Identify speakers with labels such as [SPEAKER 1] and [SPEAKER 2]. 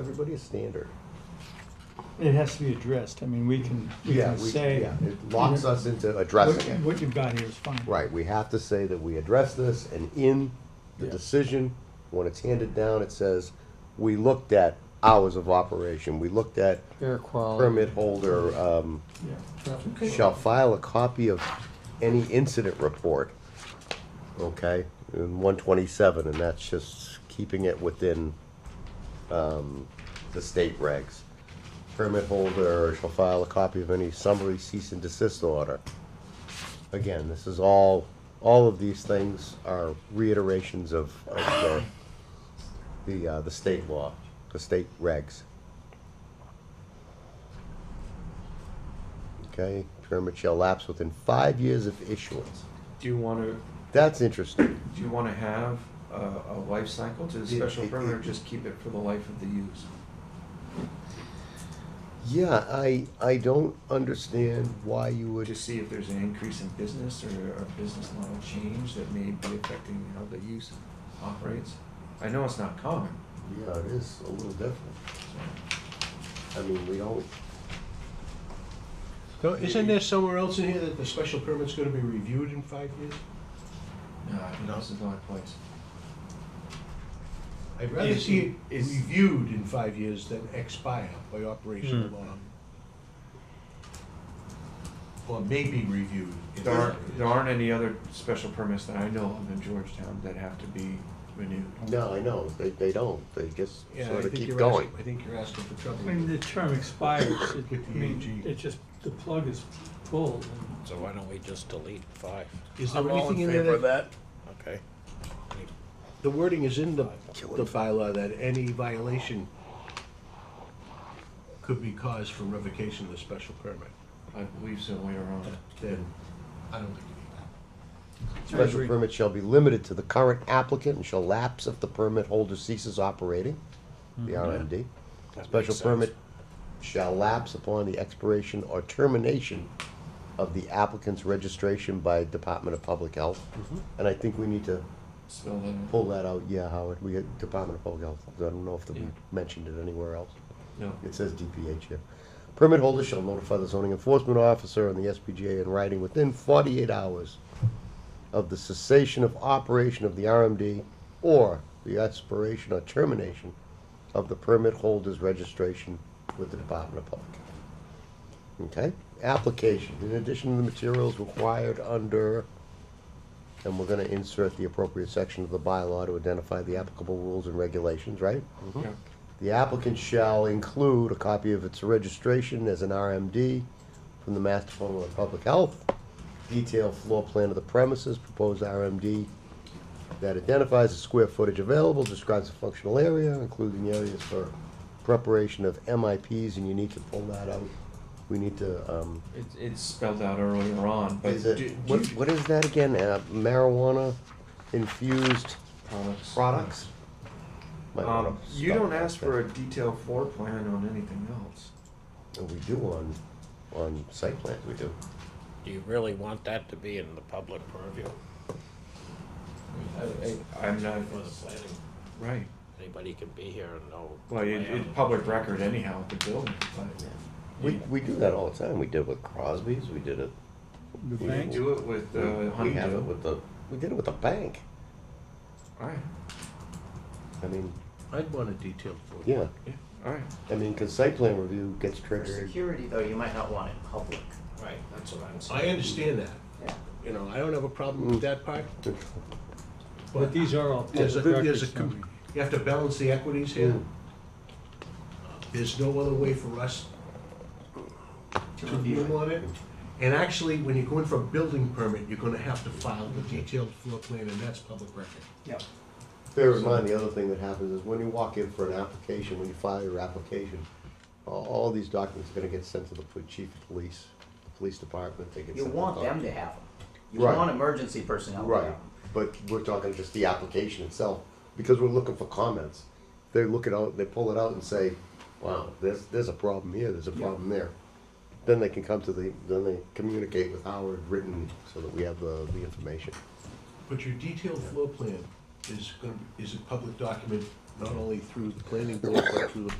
[SPEAKER 1] everybody's standard.
[SPEAKER 2] It has to be addressed, I mean, we can, we
[SPEAKER 1] Yeah,
[SPEAKER 2] can
[SPEAKER 1] we,
[SPEAKER 2] say.
[SPEAKER 1] yeah, it locks us into
[SPEAKER 2] What
[SPEAKER 1] addressing it.
[SPEAKER 2] what you've got here is fine.
[SPEAKER 1] Right, we have to say that we address this, and in the
[SPEAKER 3] Yeah.
[SPEAKER 1] decision, when it's handed down, it says, we looked at hours of operation, we looked at
[SPEAKER 4] Air quality.
[SPEAKER 1] permit holder, um,
[SPEAKER 4] Traffic.
[SPEAKER 1] shall file a copy of any incident report, okay, in one twenty-seven, and that's just keeping it within, um, the state regs. Permit holder shall file a copy of any summary cease and desist order. Again, this is all, all of these things are reiterations of, of the, the, uh, the state law, the state regs. Okay, permit shall lapse within five years of issuance.
[SPEAKER 3] Do you want to,
[SPEAKER 1] That's interesting.
[SPEAKER 3] do you want to have a, a life cycle to the
[SPEAKER 1] Yeah,
[SPEAKER 3] special
[SPEAKER 1] it-
[SPEAKER 3] permit or
[SPEAKER 1] it-
[SPEAKER 3] just keep it for the life of the use?
[SPEAKER 1] Yeah, I, I don't understand why you would,
[SPEAKER 3] To see if there's an increase in business or a business model change that may be affecting how the use operates? I know it's not common,
[SPEAKER 1] yeah, it is a little different. I
[SPEAKER 3] so.
[SPEAKER 1] mean, we don't,
[SPEAKER 5] So Isn't there somewhere else in here that the special permit's gonna be reviewed in five years?
[SPEAKER 3] No, I think uh, this is the right place.
[SPEAKER 5] I'd rather
[SPEAKER 6] Is-
[SPEAKER 5] see it
[SPEAKER 6] is-
[SPEAKER 5] reviewed in five years than expire by operation
[SPEAKER 1] Hmm.
[SPEAKER 5] of law. Or maybe reviewed. in
[SPEAKER 3] There
[SPEAKER 5] five
[SPEAKER 3] aren't,
[SPEAKER 5] years.
[SPEAKER 3] there aren't any other special permits that I know of in Georgetown that have to be renewed.
[SPEAKER 1] no, I know, they, they don't, they just
[SPEAKER 5] Yeah, I
[SPEAKER 1] sort of
[SPEAKER 5] think
[SPEAKER 1] keep
[SPEAKER 5] you're
[SPEAKER 1] going.
[SPEAKER 5] asking- I think you're asking for trouble.
[SPEAKER 2] I mean, the term expires, it,
[SPEAKER 5] With
[SPEAKER 2] I
[SPEAKER 5] the E
[SPEAKER 2] mean,
[SPEAKER 5] AG.
[SPEAKER 2] it just, the plug is pulled.
[SPEAKER 6] So why don't we just delete five?
[SPEAKER 5] Is there anything in there that,
[SPEAKER 6] that. Okay.
[SPEAKER 5] the wording is in the, the bylaw that any violation could be cause for revocation of the special permit?
[SPEAKER 3] I believe so later on.
[SPEAKER 5] Then, I don't think you need that.
[SPEAKER 1] Special permit shall be limited to the current applicant and shall lapse if the permit holder ceases operating, the
[SPEAKER 5] Mm-hmm.
[SPEAKER 1] RMD. Special permit shall lapse upon the expiration or termination of the applicant's registration by Department of Public Health.
[SPEAKER 5] Mm-hmm.
[SPEAKER 1] And I think we need to
[SPEAKER 3] Spell that out.
[SPEAKER 1] pull that out, yeah, Howard, we had Department of Public Health, I don't know if we
[SPEAKER 3] Yeah.
[SPEAKER 1] mentioned it anywhere else.
[SPEAKER 3] No.
[SPEAKER 1] It says DPH here. Permit holder shall notify the zoning enforcement officer and the SPGA in writing within forty-eight hours of the cessation of operation of the RMD or the expiration or termination of the permit holder's registration with the Department of Public Health. Okay, application, in addition to the materials required under, and we're gonna insert the appropriate section of the bylaw to identify the applicable rules and regulations, right?
[SPEAKER 3] Yeah.
[SPEAKER 1] The applicant shall include a copy of its registration as an RMD from the Mass Department of Public Health, detailed floor plan of the premises, proposed RMD that identifies the square footage available, describes the functional area, including areas for preparation of MIPs, and you need to pull that out. We need to, um,
[SPEAKER 3] It, it's spelled out earlier on, but
[SPEAKER 1] is it,
[SPEAKER 3] do-
[SPEAKER 1] what,
[SPEAKER 3] do-
[SPEAKER 1] what is that again? Uh, Marijuana infused
[SPEAKER 3] products.
[SPEAKER 1] products? Might wanna
[SPEAKER 3] Um, you
[SPEAKER 1] stop
[SPEAKER 3] don't
[SPEAKER 1] that
[SPEAKER 3] ask
[SPEAKER 1] there.
[SPEAKER 3] for a detailed floor plan on anything else.
[SPEAKER 1] And we do on, on site plans, we do.
[SPEAKER 6] Do you really want that to be in the public purview
[SPEAKER 3] I, am not,
[SPEAKER 6] for the planning?
[SPEAKER 3] right,
[SPEAKER 6] Anybody can be here and know.
[SPEAKER 3] well, it, it's public record anyhow, with the building, but.
[SPEAKER 1] We, we do that all the time. We did it with Crosby's, we did it,
[SPEAKER 2] The
[SPEAKER 1] We
[SPEAKER 2] bank,
[SPEAKER 3] Do it with, uh,
[SPEAKER 7] Mm-hmm.
[SPEAKER 1] we have it
[SPEAKER 3] Honeydew.
[SPEAKER 1] with the, we did it with the bank.
[SPEAKER 3] Alright,
[SPEAKER 1] I mean,
[SPEAKER 5] I'd want a detailed floor plan.
[SPEAKER 1] yeah,
[SPEAKER 3] yeah, alright.
[SPEAKER 1] I mean, cause site plan review gets
[SPEAKER 7] For
[SPEAKER 1] triggered.
[SPEAKER 7] security, though, you might not want it public.
[SPEAKER 6] Right, that's what I'm saying.
[SPEAKER 5] I understand that,
[SPEAKER 7] Yeah.
[SPEAKER 5] you know, I don't have a problem with that part,
[SPEAKER 2] but these are all public
[SPEAKER 5] There's a,
[SPEAKER 2] records.
[SPEAKER 5] there's a,
[SPEAKER 2] I
[SPEAKER 5] com-
[SPEAKER 2] mean.
[SPEAKER 5] you have to balance the equities here. There's no other way for us to review on it. And actually, when you go in for a building permit, you're gonna have to file the detailed floor plan, and that's public record.
[SPEAKER 7] Yep.
[SPEAKER 1] Bear in mind, the other thing that happens is when you walk in for an application, when you file your application, all, all these documents are gonna get sent to the pol- chief of police, the police department, they get sent.
[SPEAKER 7] You
[SPEAKER 1] to the
[SPEAKER 7] want
[SPEAKER 1] doc-
[SPEAKER 7] them to have them. You
[SPEAKER 1] Right.
[SPEAKER 7] want emergency personnel to have
[SPEAKER 1] Right,
[SPEAKER 7] 'em.
[SPEAKER 1] but we're talking just the application itself, because we're looking for comments. They look it out, they pull it out and say, wow, there's, there's a problem here, there's a problem there. Then they can come to the, then they communicate with Howard written, so that we have the, the information.
[SPEAKER 5] But your detailed floor plan is gonna, is a public document, not only through the planning board, but through the